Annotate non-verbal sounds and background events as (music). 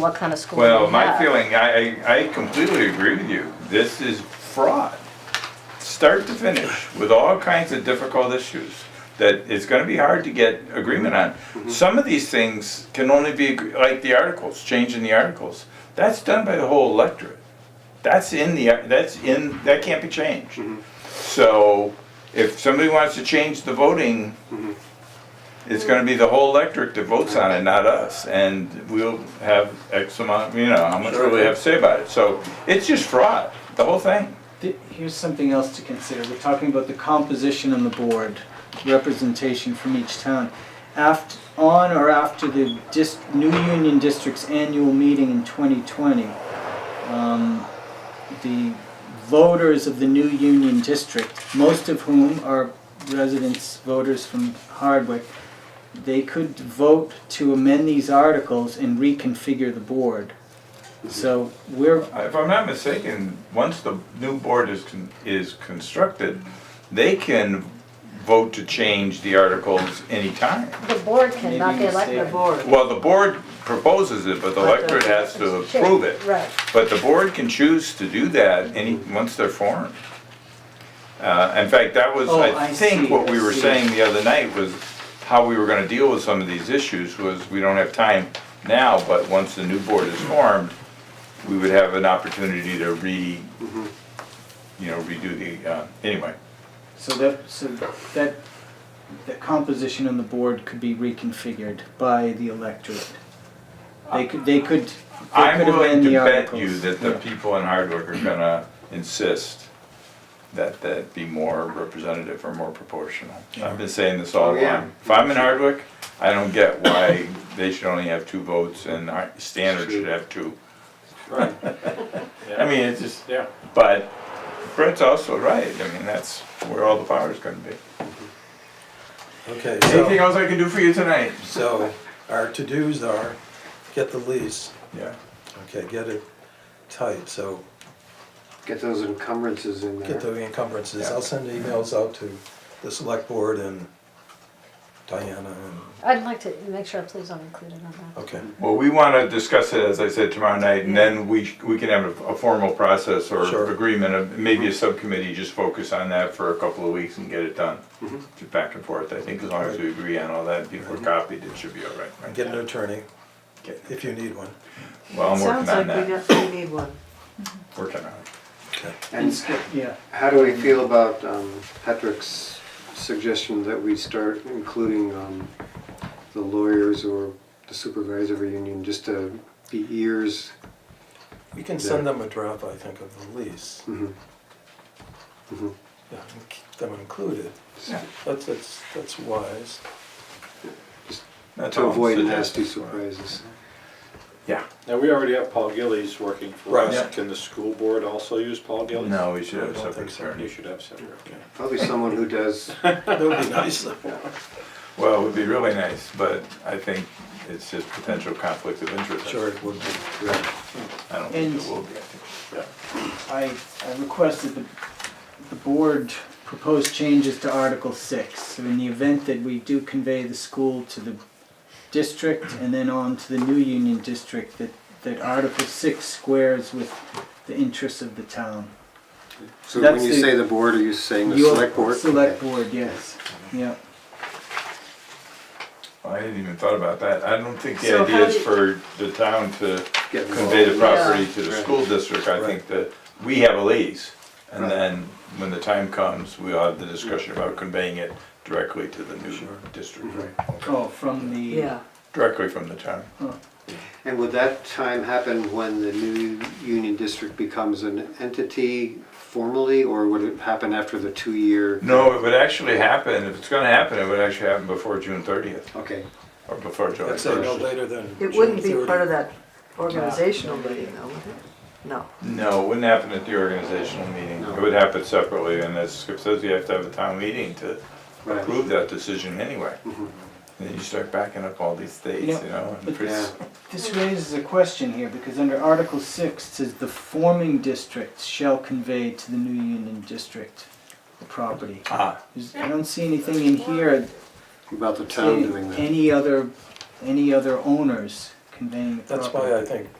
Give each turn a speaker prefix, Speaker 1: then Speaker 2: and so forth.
Speaker 1: what kind of school you have.
Speaker 2: Well, my feeling, I, I I completely agree with you. This is fraud, start to finish, with all kinds of difficult issues that it's gonna be hard to get agreement on. Some of these things can only be, agree- like the articles, changing the articles. That's done by the whole electorate. That's in the, that's in, that can't be changed. So if somebody wants to change the voting, it's gonna be the whole electorate that votes on it, not us, and we'll have X amount, you know, how much will we have to say about it? So it's just fraud, the whole thing.
Speaker 3: Th- Here's something else to consider. We're talking about the composition on the board, representation from each town. After, on or after the dis, new union district's annual meeting in 2020, um, the voters of the new union district, most of whom are residents, voters from Hardwick, they could vote to amend these articles and reconfigure the board. So we're
Speaker 2: If I'm not mistaken, once the new board is, con- is constructed, they can vote to change the articles anytime.
Speaker 1: The board can, not
Speaker 3: Maybe
Speaker 1: the elected
Speaker 3: mistaken.
Speaker 1: board.
Speaker 2: Well, the board proposes it, but the electorate has to approve it.
Speaker 1: Right.
Speaker 2: But the board can choose to do that any, once they're formed. Uh, in fact, that was,
Speaker 3: Oh,
Speaker 2: I
Speaker 3: I
Speaker 2: think
Speaker 3: see,
Speaker 2: what
Speaker 3: I
Speaker 2: we were
Speaker 3: see.
Speaker 2: saying the other night was how we were gonna deal with some of these issues was we don't have time now, but once the new board is formed, we would have an opportunity to re,
Speaker 3: Mm-hmm.
Speaker 2: you know, redo the, uh, anyway.
Speaker 3: So that, so that, the composition on the board could be reconfigured by the electorate. They could, they could, they
Speaker 2: I'm
Speaker 3: could
Speaker 2: willing
Speaker 3: amend
Speaker 2: to
Speaker 3: the
Speaker 2: bet
Speaker 3: articles.
Speaker 2: you that the
Speaker 3: Yeah.
Speaker 2: people in Hardwick are gonna insist that that be more representative or more proportional. I've been saying this all
Speaker 4: Oh, yeah.
Speaker 2: along. If I'm in Hardwick, I don't get why they should only have two votes and Har- Standard should have two.
Speaker 5: Right.
Speaker 2: (laughs) I mean, it's just,
Speaker 5: Yeah.
Speaker 2: but Brett's also right. I mean, that's where all the power's gonna be.
Speaker 4: Okay,
Speaker 2: Anything
Speaker 4: so,
Speaker 2: else I can do for you tonight?
Speaker 4: so our to-dos are get the lease,
Speaker 2: Yeah.
Speaker 4: okay, get it tight, so
Speaker 6: Get those encumbrances in
Speaker 4: get
Speaker 6: there.
Speaker 4: the encumbrances. I'll send emails out to the select board and Diana and,
Speaker 1: I'd like to make sure, please, I'm included on that.
Speaker 4: okay,
Speaker 2: Well, we want to discuss it, as I said, tomorrow night, and then we, sh- we can have a a formal process or
Speaker 4: Sure. Mm-hmm.
Speaker 2: agreement, of- maybe a subcommittee, just focus on that for a couple of weeks and get it done.
Speaker 4: Mm-hmm.
Speaker 2: Just back and forth, I think as long as we agree on all that, people are copied, it should be all right,
Speaker 4: and
Speaker 2: right?
Speaker 4: Mm-hmm. get an attorney if you need one,
Speaker 2: Well, I'm working
Speaker 7: Sounds like
Speaker 2: on
Speaker 7: we
Speaker 2: that,
Speaker 7: got, we need one.
Speaker 2: working on it.
Speaker 4: okay.
Speaker 6: And
Speaker 3: Yeah,
Speaker 6: how do we feel about um, Patrick's suggestion that we start including um, the lawyers or the supervisory union just to be ears?
Speaker 4: We can send them a draft, I think, of the lease,
Speaker 6: Mhm.
Speaker 4: yeah, and keep them included.
Speaker 2: Yeah.
Speaker 4: That's, that's, that's wise.
Speaker 2: That's
Speaker 6: To
Speaker 2: all I'm
Speaker 6: avoid
Speaker 2: suggesting.
Speaker 6: nasty surprises.
Speaker 2: Yeah,
Speaker 5: Now, we already have Paul Gillies working for
Speaker 4: Right.
Speaker 2: Yeah.
Speaker 5: us. Can the school board also use Paul Gillies?
Speaker 2: no, we should have a
Speaker 4: I don't
Speaker 2: separate
Speaker 4: think so.
Speaker 5: You
Speaker 2: attorney.
Speaker 5: should have separate, okay.
Speaker 6: Probably someone
Speaker 2: (laughs)
Speaker 6: who does,
Speaker 4: That would be nice.
Speaker 2: Well, it would be really nice, but I think it's just potential conflict of interest.
Speaker 4: Sure, it would be.
Speaker 2: I don't think it
Speaker 3: And-
Speaker 2: will be, I think.
Speaker 3: I, I requested the, the board propose changes to Article Six. So in the event that we do convey the school to the district and then on to the new union district, that, that Article Six squares with the interests of the town.
Speaker 6: so when
Speaker 3: That's
Speaker 6: you
Speaker 3: the-
Speaker 6: say the board, are you saying the
Speaker 3: Your
Speaker 6: select board?
Speaker 3: Select board, yes, yeah.
Speaker 2: I hadn't even thought about that. I don't think the
Speaker 7: So
Speaker 2: idea
Speaker 7: how
Speaker 2: is
Speaker 7: do-
Speaker 2: for the town to
Speaker 6: Get involved.
Speaker 2: convey the property
Speaker 7: Yeah.
Speaker 2: to the
Speaker 6: Right.
Speaker 2: school district. I think
Speaker 4: Right.
Speaker 2: that we have a lease. And
Speaker 6: Right.
Speaker 2: then when the time comes, we'll have the discussion about conveying it directly to the new
Speaker 4: Sure.
Speaker 2: district.
Speaker 3: Oh, from the.
Speaker 7: Yeah.
Speaker 2: Directly from the town.
Speaker 6: And would that time happen when the new union district becomes an entity formally, or would it happen after the two-year?
Speaker 2: No, it would actually happen, if it's gonna happen, it would actually happen before June thirtieth
Speaker 6: Okay,
Speaker 2: or before July
Speaker 4: I'd say no
Speaker 2: first.
Speaker 4: later than
Speaker 7: It wouldn't be
Speaker 4: June
Speaker 7: part of
Speaker 4: 30.
Speaker 7: that organizational meeting though, would it? No.
Speaker 2: No, it wouldn't happen at the organizational meeting.
Speaker 6: No.
Speaker 2: It would happen separately and as Skip says, you have to have a town meeting to
Speaker 6: right.
Speaker 2: approve that decision anyway.
Speaker 6: Mhm.
Speaker 2: And then you start backing up all these dates,
Speaker 3: Mm-hmm. Yeah.
Speaker 2: you know, and
Speaker 3: But-
Speaker 2: pretty-
Speaker 3: This raises a question here, because under Article six, it says the forming districts shall convey to the new union district the property.
Speaker 2: Ah,
Speaker 3: There's- I don't see anything in here,
Speaker 6: About the town doing
Speaker 3: saying
Speaker 6: that.
Speaker 3: any other, any other owners conveying the property.
Speaker 4: That's why I think